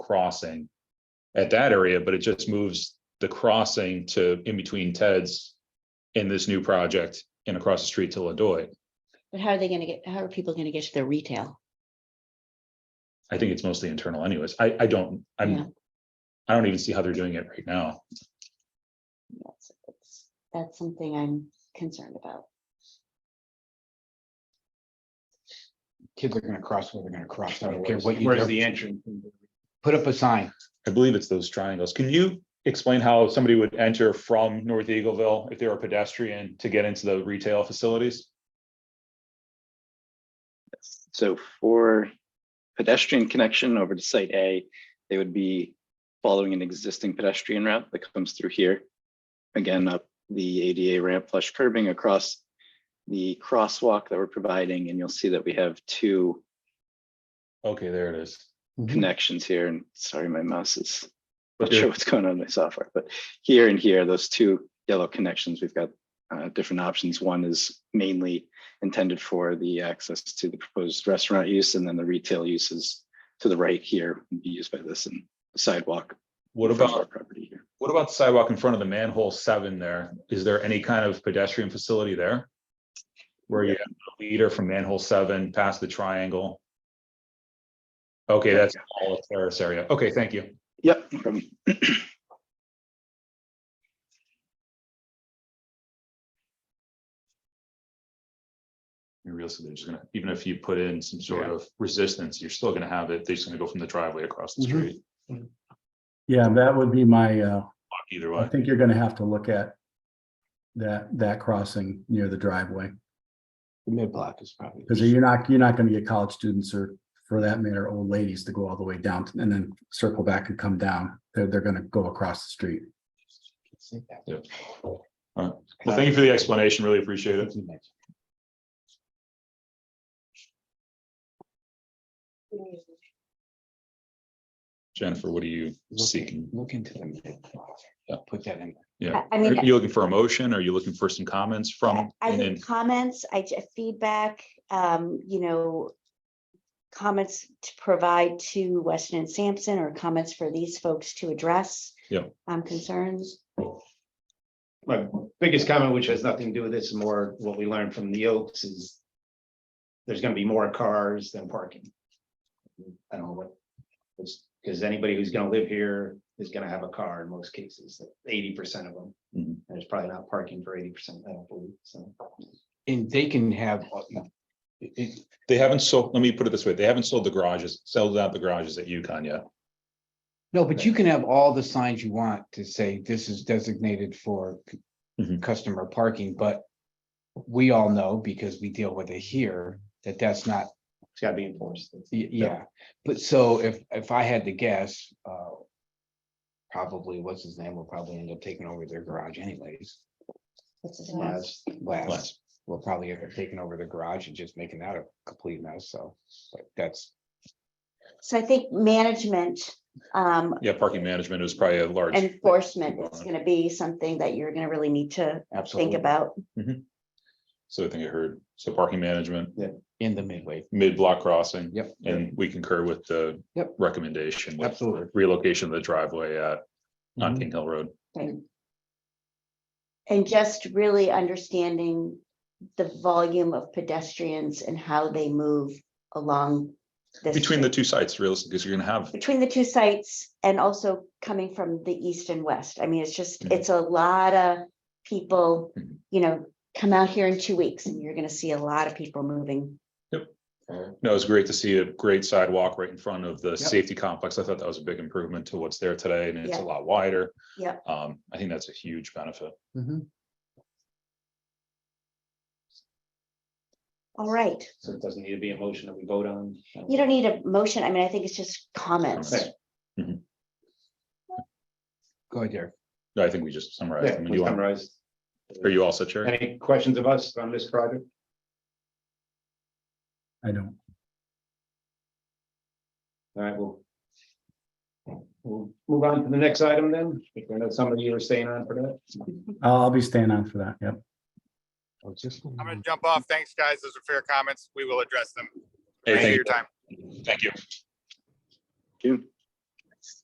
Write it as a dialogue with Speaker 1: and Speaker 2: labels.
Speaker 1: crossing at that area, but it just moves the crossing to in between Ted's in this new project and across the street to Ladoit.
Speaker 2: But how are they gonna get, how are people gonna get to their retail?
Speaker 1: I think it's mostly internal anyways. I, I don't,
Speaker 2: Yeah.
Speaker 1: I'm, I don't even see how they're doing it right now.
Speaker 2: That's- that's- That's something I'm concerned about.
Speaker 3: Kids are gonna cross where they're gonna cross. I don't care
Speaker 4: Where's
Speaker 3: what you
Speaker 4: where's
Speaker 3: do.
Speaker 4: the entrance?
Speaker 3: Put up a sign.
Speaker 1: I believe it's those triangles. Can you explain how somebody would enter from North Eagleville if they were a pedestrian to get into the retail facilities?
Speaker 5: So for pedestrian connection over to site A, they would be following an existing pedestrian route that comes through here. Again, up the ADA ramp flush curbing across the crosswalk that we're providing, and you'll see that we have two
Speaker 1: Okay, there it is. Mm-hmm.
Speaker 5: connections here, and sorry, my mouse is
Speaker 1: But
Speaker 5: not sure
Speaker 1: there-
Speaker 5: what's going on in my software, but here and here, those two yellow connections, we've got uh, different options. One is mainly intended for the access to the proposed restaurant use, and then the retail uses to the right here would be used by this and sidewalk.
Speaker 1: What
Speaker 5: in front of
Speaker 1: about,
Speaker 5: our Property here.
Speaker 1: what about the sidewalk in front of the manhole seven there? Is there any kind of pedestrian facility there? Where you have a leader from manhole seven past the triangle? Okay, that's all of Terrace area. Okay, thank you.
Speaker 5: Yep, no problem.
Speaker 1: You realize that they're just gonna, even if you put in some sort of resistance, you're still gonna have it. They're just gonna go from the driveway across the
Speaker 3: Mhm.
Speaker 1: street.
Speaker 6: Yeah, that would be my, uh,
Speaker 1: Fuck Either
Speaker 6: I
Speaker 1: way.
Speaker 6: think you're gonna have to look at that, that crossing near the driveway.
Speaker 3: The mid-block is probably.
Speaker 6: Because you're not, you're not gonna get college students or for that matter, old ladies to go all the way down and then circle back and come down. They're, they're gonna go across the street.
Speaker 1: Yep. All right. Well, thank you for the explanation. Really appreciate it. Jennifer, what are you seeking?
Speaker 3: Look into the mid-block.
Speaker 1: Yeah.
Speaker 3: Put that in.
Speaker 1: Yeah.
Speaker 2: I- I
Speaker 1: Are
Speaker 2: mean,
Speaker 1: you looking for a motion? Are you looking for some comments
Speaker 2: I-
Speaker 1: from?
Speaker 2: I
Speaker 1: and then-
Speaker 2: think comments, I, ju- feedback, um, you know, comments to provide to Weston and Sampson or comments for these folks to address.
Speaker 1: Yeah.
Speaker 2: Um, concerns.
Speaker 4: My biggest comment, which has nothing to do with this, more what we learned from the Oaks is there's gonna be more cars than parking. I don't know what, because anybody who's gonna live here is gonna have a car in most cases, eighty percent of them.
Speaker 1: Mhm.
Speaker 4: And There's probably not parking for eighty percent, I don't believe, so.
Speaker 3: And they can have. uh, it- it-
Speaker 1: They haven't sold, let me put it this way. They haven't sold the garages, sold out the garages at UConn yet.
Speaker 3: No, but you can have all the signs you want to say this is designated for c-
Speaker 1: Mhm.
Speaker 3: customer parking, but we all know because we deal with it here, that that's not
Speaker 4: It's gotta be enforced.
Speaker 3: Y- Yeah, but so if, if I had to guess, uh. Probably, what's his name, will probably end up taking over their garage anyways.
Speaker 2: What's his name?
Speaker 3: Last, last, will probably end up taking over the garage and just making that a complete mess, so, but that's.
Speaker 2: So I think management, um,
Speaker 1: Yeah, parking management is probably a large.
Speaker 2: enforcement is
Speaker 1: Yeah.
Speaker 2: gonna be something that you're gonna really need to think
Speaker 3: Absolutely,
Speaker 2: about.
Speaker 1: So I think I heard, so parking management,
Speaker 3: in the midway,
Speaker 1: mid-block crossing.
Speaker 3: yep.
Speaker 1: And we concur with the
Speaker 3: Yep.
Speaker 1: recommendation with
Speaker 3: Absolutely.
Speaker 1: relocation of the driveway at, on
Speaker 3: Mhm.
Speaker 1: King Hill Road.
Speaker 2: And just really understanding the volume of pedestrians and how they move along. this
Speaker 1: Between
Speaker 2: street.
Speaker 1: the two sites, realistically, because you're gonna have,
Speaker 2: between the two sites and also coming from the east and west. I mean, it's just,
Speaker 1: Mhm.
Speaker 2: it's a lot of people,
Speaker 1: Mhm.
Speaker 2: you know, come out here in two weeks and you're gonna see a lot of people moving.
Speaker 1: no, it's great to see a great sidewalk right in front of the safety complex. I thought that was a big improvement to what's there today and it's a
Speaker 2: Yeah.
Speaker 1: lot wider.
Speaker 2: Yep.
Speaker 1: Um, I think that's a huge benefit.
Speaker 2: All right.
Speaker 4: So it doesn't need to be a motion that we vote on.
Speaker 2: You don't need a motion. I mean, I think it's just comments.
Speaker 4: Okay.
Speaker 3: Go ahead, Derek.
Speaker 1: No, I think we just summarized.
Speaker 4: Yeah,
Speaker 1: them. Do
Speaker 4: we
Speaker 1: you want-
Speaker 4: summarized.
Speaker 1: Are you all set, Chair?
Speaker 4: Any questions of us on this project?
Speaker 6: I don't,
Speaker 4: All right, we'll. We'll move on to the next item then, if I know some of you are staying on for that.
Speaker 6: I'll, I'll be staying on for that. Yep.
Speaker 7: I'm gonna jump off. Thanks, guys. Those are fair comments. We will address them.
Speaker 1: Hey,
Speaker 7: Thank you for
Speaker 1: thank
Speaker 7: your time.
Speaker 1: you. Thank you.
Speaker 5: June.